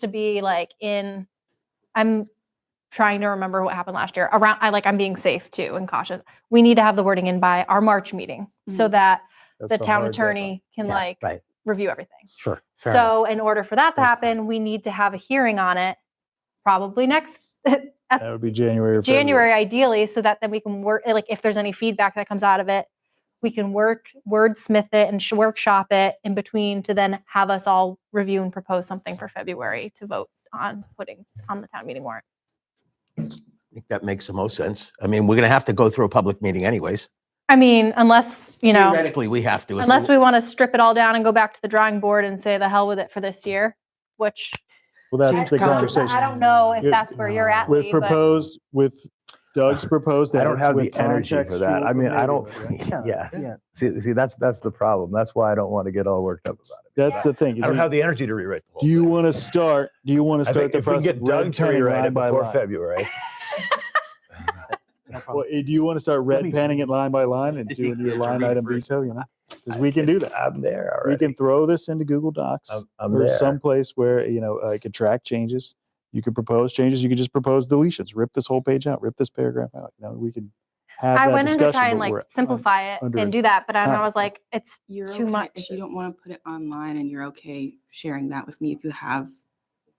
to be like in I'm trying to remember what happened last year. Around I like I'm being safe too and cautious. We need to have the wording in by our March meeting so that That's the town hard deadline. attorney can Yeah, like right. review everything. Sure. So fair enough. in order for that to That's happen, we need to have a hearing on it probably next That would be January. or February. January ideally so that then we can work eh, like if there's any feedback that comes out of it, we can work wordsmith it and sh- workshop it in between to then have us all review and propose something for February to vote on putting on the town meeting warrant. I think that makes the most sense. I mean, we're going to have to go through a public meeting anyways. I mean, unless, you know, Theoretically, we have to. if unless we want to strip it all down and go back to the drawing board and say the hell with it for this year, which Well, I that's the don't- conversation. I don't know if It- that's where you're at. With Lee, but- proposed, with Doug's proposed. I don't edits have the with energy for that. I contextual mean, I don't, amendment, right? yeah. Yeah. See, see, that's that's the problem. That's why I don't want to get all worked up about it. That's the thing. is I don't you- have the energy to rewrite the whole Do you thing. want to start, do you want to I start think the if we can process? get Doug to red-penning rewrite line it by before line? February. Well, eh, do you want to start red panning it line by line and doing your line item veto, you know? Because we can do that. I'm there We already. can throw this into Google Docs. I'm- I'm or there. someplace where you know uh, I could track changes. You could propose changes. You could just propose deletions. Rip this whole page out. Rip this paragraph out. You know, we could have. I that went in to discussion, try and but like we're un- simplify it under and do that, but I, I time. was like, it's You're too okay much. If you don't It's- want to put it online and you're okay sharing that with me, if you have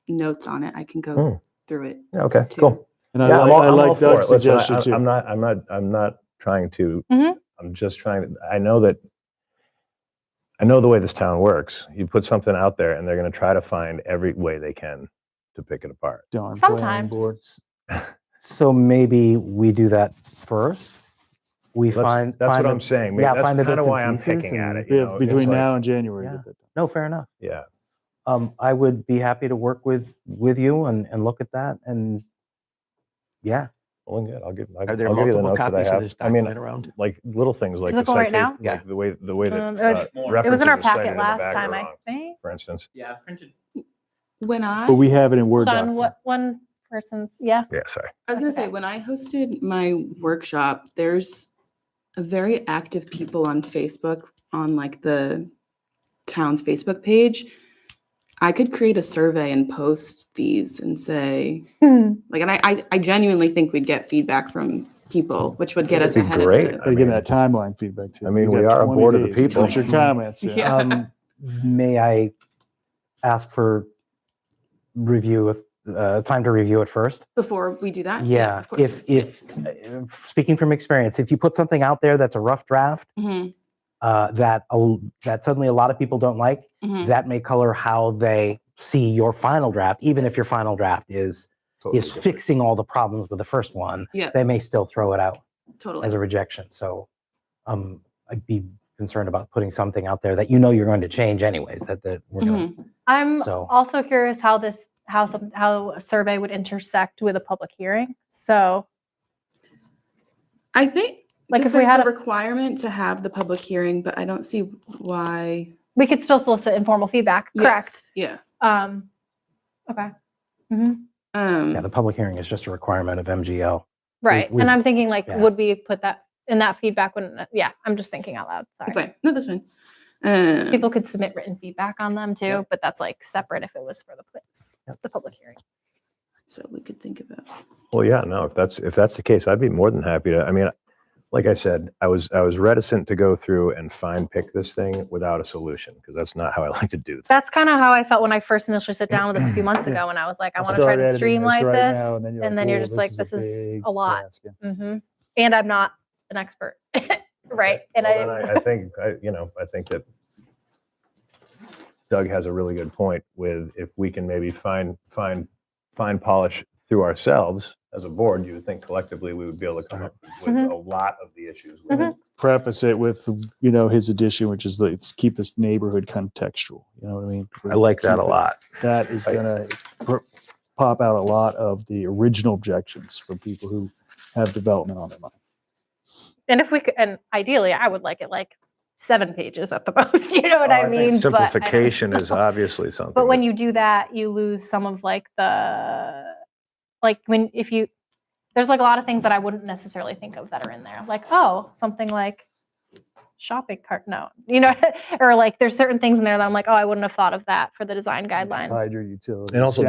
notes on it, I can go Mm. through it. Yeah, Okay, too. cool. And I, Yeah, like, I'm all- I I'm all like for Doug's it. Listen, I- suggestion I'm too. not, I'm not, I'm not trying to, Mhm. I'm just trying to, I know that, I know the way this town works. You put something out there and they're going to try to find every way they can to pick it apart. Darn planning Sometimes. board. So maybe we do that first. We That's- find That's find what the- I'm saying. man. yeah, That's find the kind of bits and why I'm pieces picking at and- it. you We have know, it's between like- now and January. to Yeah. get that done. No, fair enough. Yeah. Um, I would be happy to work with with you and and look at that and yeah. Well, good. I'll give, I'll Are I'll give there you the multiple notes that I copies of have. this I mean, document around? like little things like it the going right citation, now? Yeah. like the way, the way that Um, uh, it- It was references in our are cited packet in the last back time, are I wrong, think. for instance. Yeah, I've printed. When I, But we have it in Word. Hold on, doc what one person's yeah. Yeah, sorry. I was gonna say, okay. when I hosted my workshop, there's a very active people on Facebook, on like the town's Facebook page. I could create a survey and post these and say, like, and I, I, I genuinely think we'd get feedback from people, which would get That'd us be ahead great. of it. Gotta give that timeline feedback too. I mean, You we got are a 20 board of the days to Put your people. comments in. Yeah. Um, may I ask for review with uh, time to review it first? Before we do that? Yeah. Uh, of course. if if uh, speaking from experience, if you put something out there that's a rough draft Mhm, uh, that a, that suddenly a lot of people don't like, mhm. that may color how they see your final draft. Even if your final draft is is Totally different. fixing all the problems with the first one, Yeah. they may still throw it out Totally. as a rejection. So um, I'd be concerned about putting something out there that you know you're going to change anyways. That that we're gonna, Mhm. I'm So- also curious how this how some how a survey would intersect with a public hearing. So I think Like, like if if we there's had the a- requirement to have the public hearing, but I don't see why. we could still solicit informal feedback. Correct. Yes, Yeah. Um okay. Mhm. Um, yeah, the public hearing is just a requirement of MGL. Right. we- and I'm thinking like yeah. would we put that in that feedback when yeah, I'm just thinking out loud. Sorry. okay. No, that's fine. Um, People could submit written feedback on them too, but that's like separate if it was for the place, the public hearing. so we could think about. Well, yeah, no, if that's if that's the case, I'd be more than happy to. I mean, like I said, I was I was reticent to go through and fine pick this thing without a solution because that's not how I like to do things. That's kind of how I felt when I first initially sat down with this a few months ago, and I was like, I want to try to streamline this, and then you're just like, this is a lot. hmm And I'm not an expert, right? And Well, then I, I, I think I, you know, I think that Doug has a really good point with if we can maybe find find fine polish through ourselves as a board, you would think collectively we would be able to come up with Mhm. a lot of the issues. With Mhm. it. preface it with you know his addition, which is like, let's keep this neighborhood contextual. You know what I mean? I like that a Keep it- lot. That is I- gonna pr- pop out a lot of the original objections from people who have development on their mind. and if we could, and ideally, I would like it like seven pages at the most. You know what Well, Oh, I, think mean? But I don't Simplification is know. obviously something. But when that- you do that, you lose some of like the, like when, if you, there's like a lot of things that I wouldn't necessarily think of that are in there. Like, oh, something like shopping cart, no, you know, or like there's certain things in there that I'm like, oh, I wouldn't have thought of that for the design guidelines. Hide your utilities. And also